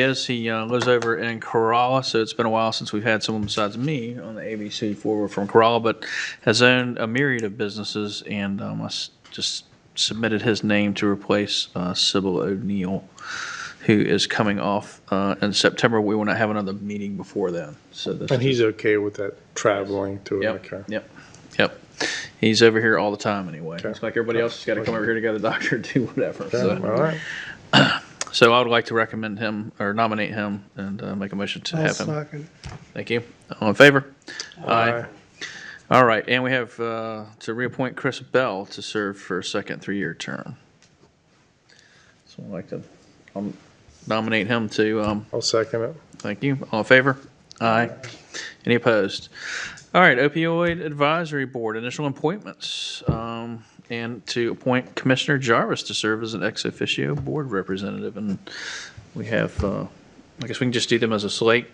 is. He uh, lives over in Corolla, so it's been a while since we've had someone besides me on the ABC forward from Corolla, but has owned a myriad of businesses, and um, I s- just submitted his name to replace uh, Sybil O'Neill, who is coming off uh, in September. We want to have another meeting before then, so this. And he's okay with that traveling to it, okay? Yep, yep, yep. He's over here all the time anyway. Okay. It's like everybody else has got to come over here to go to the doctor, do whatever. Yeah, so. All right, So I would like to recommend him or nominate him and uh, make a motion to I'll have him. second. Thank you. All in favor? Aye. All right, and we have uh, to reappoint Chris Bell to serve for a second three-year term. So I'd like to um, nominate him to, um, I'll second it. thank you. All in favor? Aye. Any opposed? All right, opioid advisory board, initial appointments. um, And to appoint Commissioner Jarvis to serve as an ex officio board representative. And we have, uh, I guess we can just do them as a slate.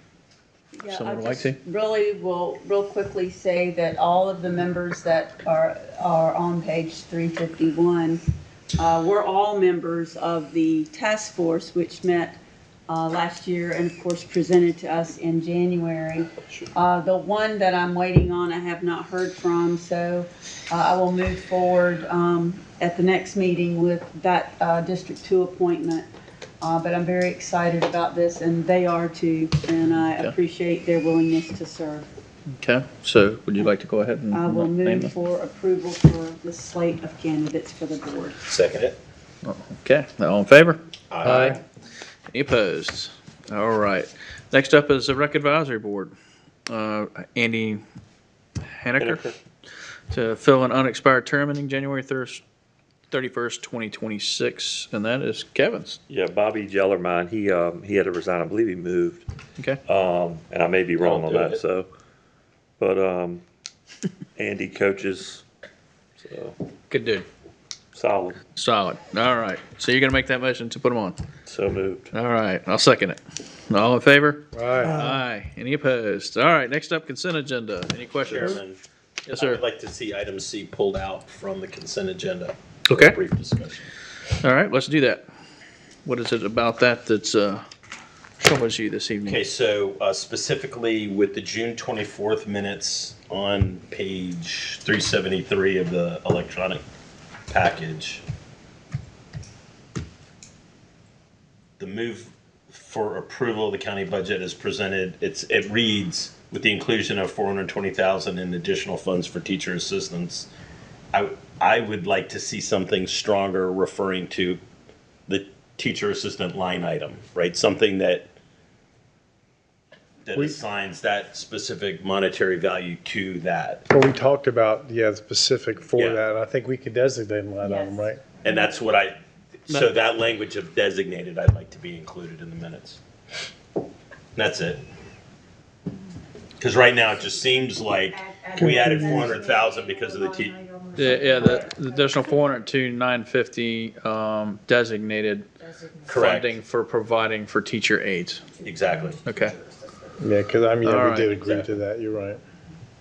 Yeah, I Someone would like just to? Really will, real quickly say that all of the members that are, are on page 351, uh, were all members of the task force, which met uh, last year and of course presented to us in January. Uh, The one that I'm waiting on, I have not heard from, so uh, I will move forward um, at the next meeting with that uh, District 2 appointment. Uh, But I'm very excited about this, and they are too, and I Okay. appreciate their willingness to serve. Okay, so would you like to go ahead and I will name them? move for approval for the slate of candidates for the board. Second it. Okay, all in favor? Aye. Any opposed? All right. Next up is the Rec Advisory Board. Uh, Andy Haneker Haneker. to fill an unexpired term ending January thirst- 31st, 2026, and that is Kevin's. Yeah, Bobby Jellermine, he, um, he had to resign, I believe he moved, Okay, Uh. um, and I may be wrong on do that, it. so. But, um, Andy coaches, so, good dude. solid, Solid. All right. So you're going to make that motion to put him on? so moved. All right, I'll second it. All in favor? Aye. Aye. Any opposed? All right, next up, consent agenda. Any questions? Chairman. Yes, sir. I'd like to see item C pulled out from the consent agenda. Okay. Brief discussion. All right, let's do that. What is it about that that's uh, troubles you this evening? Okay, so uh, specifically with the June 24th minutes on page 373 of the electronic package, the move for approval of the county budget is presented, it's, it reads, with the inclusion of 420,000 in additional funds for teacher assistance. I, I would like to see something stronger referring to the teacher assistant line item, right? Something that that We- assigns that specific monetary value to that. Well, we talked about, yeah, the specific for Yeah. that, and I think we could designate line item, Yes. right? And that's what I, so that language of designated, I'd like to be included in the minutes. That's it. Because right now, it just seems like we added four hundred thousand because of the te, Yeah, yeah, the the additional 402, 950 um, designated correct, funding for providing for teacher aides. exactly, Okay, Yeah, because I mean, yeah, Alright. we did agree to that, you're right.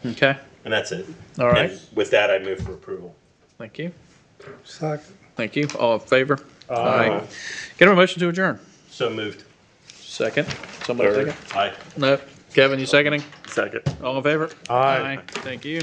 okay, and that's it. all right, And With that, I move for approval. thank you, Second. thank you, all in favor? Aye. Get a motion to adjourn. So moved. Second, somebody Third. second? Aye. No, Kevin, you seconding? Second. All in favor? Aye. Thank you.